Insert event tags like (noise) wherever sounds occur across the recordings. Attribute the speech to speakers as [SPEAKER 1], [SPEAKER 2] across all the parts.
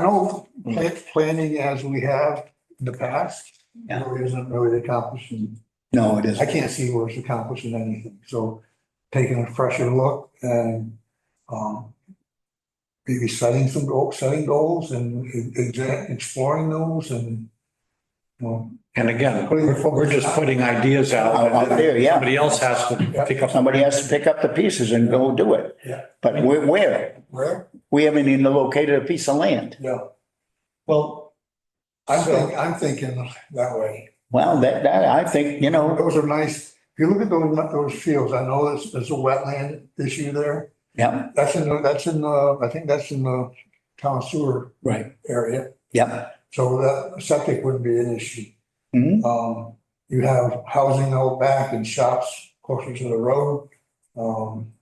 [SPEAKER 1] know
[SPEAKER 2] Mm-hmm.
[SPEAKER 1] pla- planning as we have in the past,
[SPEAKER 3] Yeah.
[SPEAKER 1] really isn't really accomplishing.
[SPEAKER 3] No, it
[SPEAKER 1] I
[SPEAKER 3] isn't.
[SPEAKER 1] can't see where it's accomplishing anything. So taking a fresher look and um, maybe setting some goals, setting goals and exa- exploring those and you know,
[SPEAKER 2] And again,
[SPEAKER 1] Putting the
[SPEAKER 2] we're
[SPEAKER 1] focus
[SPEAKER 2] we're just
[SPEAKER 1] out.
[SPEAKER 2] putting ideas out.
[SPEAKER 3] Out- out there, yeah.
[SPEAKER 2] Somebody else has to pick up.
[SPEAKER 3] Somebody has to pick up the pieces and go do it.
[SPEAKER 1] Yeah.
[SPEAKER 3] But where- where?
[SPEAKER 1] where,
[SPEAKER 3] We haven't even located a piece of land.
[SPEAKER 1] yeah.
[SPEAKER 2] Well,
[SPEAKER 1] I'm
[SPEAKER 2] So-
[SPEAKER 1] thinking, I'm thinking that way.
[SPEAKER 3] Well, that, that, I think, you know,
[SPEAKER 1] Those are nice, if you look at those, those fields, I know there's, there's a wetland issue there.
[SPEAKER 3] yeah,
[SPEAKER 1] That's in, the that's in, the I think that's in the town sewer
[SPEAKER 3] right,
[SPEAKER 1] area,
[SPEAKER 3] yeah.
[SPEAKER 1] so that septic wouldn't be an issue.
[SPEAKER 3] Mhm.
[SPEAKER 1] Um, you have housing out back and shops closer to the road. Um,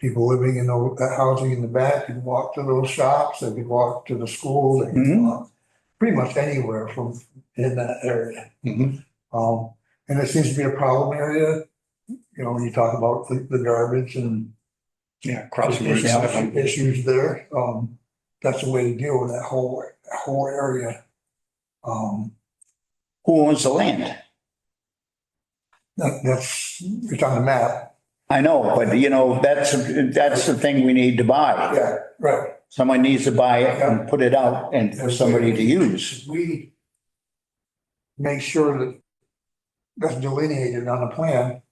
[SPEAKER 1] people living in the, that housing in the back can walk to those shops, they can walk to the school, they can
[SPEAKER 3] Mhm.
[SPEAKER 1] walk pretty much anywhere from, in that area.
[SPEAKER 2] mhm.
[SPEAKER 1] Um, and it seems to be a problem area, you know, when you talk about the, the garbage and
[SPEAKER 2] yeah, crossing Route
[SPEAKER 1] issues,
[SPEAKER 2] 7.
[SPEAKER 1] issues there, um, that's the way to deal with that whole, that whole area. Um,
[SPEAKER 3] Who owns the land?
[SPEAKER 1] that, that's, it's on the map,
[SPEAKER 3] I know, but you know, that's, that's the thing we need to buy.
[SPEAKER 1] yeah, right.
[SPEAKER 3] Someone needs to buy it and put it out and for somebody to use.
[SPEAKER 1] We make sure that that's delineated on the plan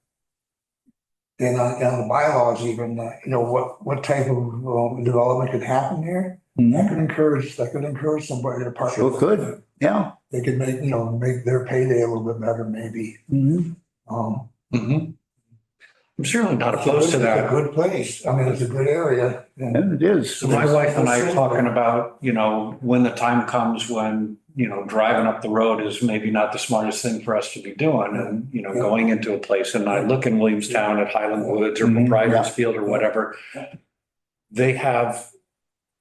[SPEAKER 1] and on, and on the bylaws even, uh, you know, what, what type of um, development could happen here. That
[SPEAKER 3] Mhm.
[SPEAKER 1] could encourage, that could encourage somebody to park.
[SPEAKER 3] Sure could. Yeah.
[SPEAKER 1] They could make, you know, make their payday a little bit better, maybe.
[SPEAKER 3] Mhm.
[SPEAKER 1] Um.
[SPEAKER 2] Mhm. I'm certainly not opposed
[SPEAKER 1] It's
[SPEAKER 2] to
[SPEAKER 1] a
[SPEAKER 2] that.
[SPEAKER 1] good place. I mean, it's a good area. and-
[SPEAKER 3] It is.
[SPEAKER 2] So my wife and I are talking about, you know, when the time comes when, you know, driving up the road is maybe not the smartest thing for us to be doing and, you know,
[SPEAKER 1] Yeah.
[SPEAKER 2] going into a place and I look in Williamstown at Highland Woods or
[SPEAKER 3] Mhm,
[SPEAKER 2] Briar's
[SPEAKER 3] yeah.
[SPEAKER 2] Field or whatever. They have,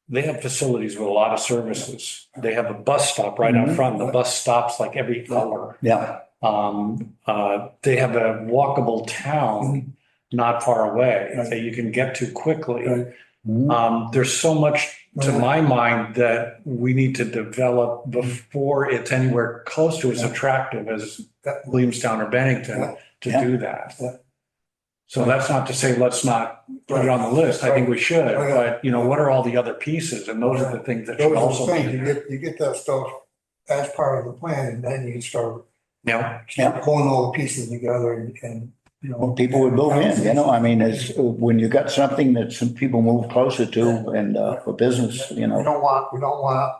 [SPEAKER 2] they have facilities with a lot of services. They have a bus stop right out
[SPEAKER 3] Mhm.
[SPEAKER 2] front. The bus stops like every hour.
[SPEAKER 3] Yeah,
[SPEAKER 2] Um, uh, they have a walkable town not far away
[SPEAKER 1] Right.
[SPEAKER 2] that you can get to
[SPEAKER 1] Right.
[SPEAKER 2] quickly.
[SPEAKER 3] Mhm.
[SPEAKER 2] Um, there's so much to
[SPEAKER 1] Right. Mm-hmm.
[SPEAKER 2] my mind that we need to develop before it's anywhere close to as
[SPEAKER 1] Yeah.
[SPEAKER 2] attractive as
[SPEAKER 1] That-
[SPEAKER 2] Williamstown or
[SPEAKER 1] Yeah.
[SPEAKER 2] Bennington to
[SPEAKER 3] Yeah.
[SPEAKER 2] do that.
[SPEAKER 1] Yeah.
[SPEAKER 2] So that's not to say let's not put it on the list. I think we should,
[SPEAKER 1] Right. Oh, yeah.
[SPEAKER 2] but you know, what are all the other pieces? And those are the things that should
[SPEAKER 1] Those are
[SPEAKER 2] also
[SPEAKER 1] the
[SPEAKER 2] be.
[SPEAKER 1] things, you
[SPEAKER 2] in there.
[SPEAKER 1] get, you get that stuff as part of the plan and then you start
[SPEAKER 2] Yeah,
[SPEAKER 3] Yeah.
[SPEAKER 1] pulling all the pieces together and, and, you know.
[SPEAKER 3] Well, people would move in, you know, I mean, it's, when you got something that some people move closer to and uh, for business, you
[SPEAKER 1] We
[SPEAKER 3] know.
[SPEAKER 1] don't want, we don't want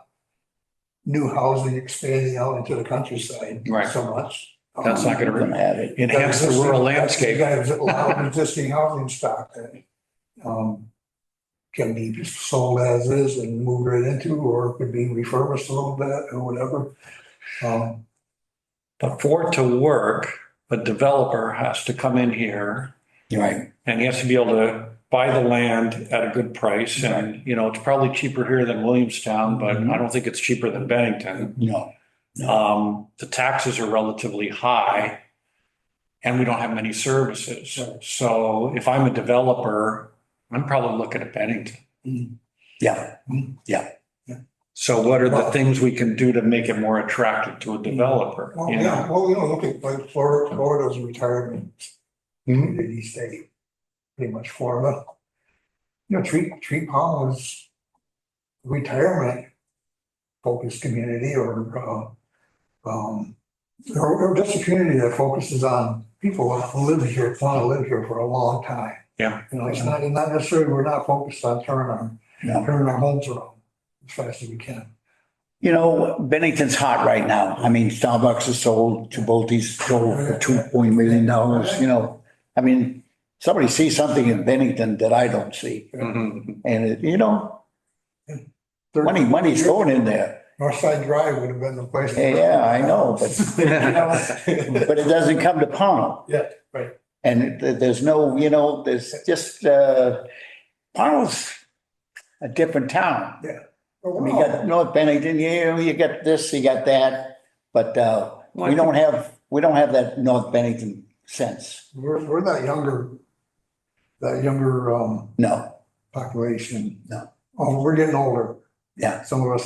[SPEAKER 1] new housing expanding out into the countryside
[SPEAKER 2] Right.
[SPEAKER 1] so much.
[SPEAKER 2] That's not gonna-
[SPEAKER 3] we're have it.
[SPEAKER 2] enhance the rural landscape.
[SPEAKER 1] You got a lot
[SPEAKER 2] (laughs)
[SPEAKER 1] of existing housing stock that um, can be sold as is and moved right into, or it could be refurbished a little bit or whatever. Um,
[SPEAKER 2] But for it to work, a developer has to come in here
[SPEAKER 3] Right,
[SPEAKER 2] and he has to be able to buy the land at a good price. And, you know, it's probably cheaper here than Williamstown, but I don't think it's cheaper than Bennington.
[SPEAKER 3] Mm-hmm. no,
[SPEAKER 2] Um, the taxes are relatively high and we don't have many services. So if I'm a developer, I'm probably looking at Bennington.
[SPEAKER 3] yeah,
[SPEAKER 2] So what are the things we can do to make it more attractive to a
[SPEAKER 3] Mm.
[SPEAKER 2] developer?
[SPEAKER 1] Well,
[SPEAKER 2] you know?
[SPEAKER 1] yeah, well, you know, look at like Florida, Florida's retirement
[SPEAKER 3] Mm-hmm.
[SPEAKER 2] Mhm.
[SPEAKER 1] community state, pretty much Florida. You know, Treat, Treat Palm is retirement focused community or, uh, um, or, or just a community that focuses on people who live here, want to live here for a long time.
[SPEAKER 2] Yeah.
[SPEAKER 1] You know, it's not, it's not necessarily, we're not focused on turning
[SPEAKER 3] no.
[SPEAKER 1] our, turning our homes around as fast as we can.
[SPEAKER 3] You know, Bennington's hot right now. I mean, Starbucks is sold, Chipotle's sold for two point million dollars, you know. I mean, somebody sees something in Bennington that I don't see.
[SPEAKER 2] Mhm.
[SPEAKER 3] And, it- (laughs) you know, money, money's going in there.
[SPEAKER 1] Northside Drive would have been the place. to-
[SPEAKER 3] Yeah, I know, but
[SPEAKER 1] (laughs)
[SPEAKER 3] but it doesn't come to Pownell.
[SPEAKER 1] Yeah, right.
[SPEAKER 3] And th- there's no, you know, there's just, uh, Pownell's a different town. (laughs) I mean, you got North Bennington, you, you got this, you got that, but, uh,
[SPEAKER 2] (laughs)
[SPEAKER 3] we don't have, we don't have that North Bennington sense,
[SPEAKER 1] We're, we're that younger, that younger, um,
[SPEAKER 3] no.
[SPEAKER 1] population.
[SPEAKER 3] No.
[SPEAKER 1] Oh, we're getting older.
[SPEAKER 3] Yeah.
[SPEAKER 1] Some of us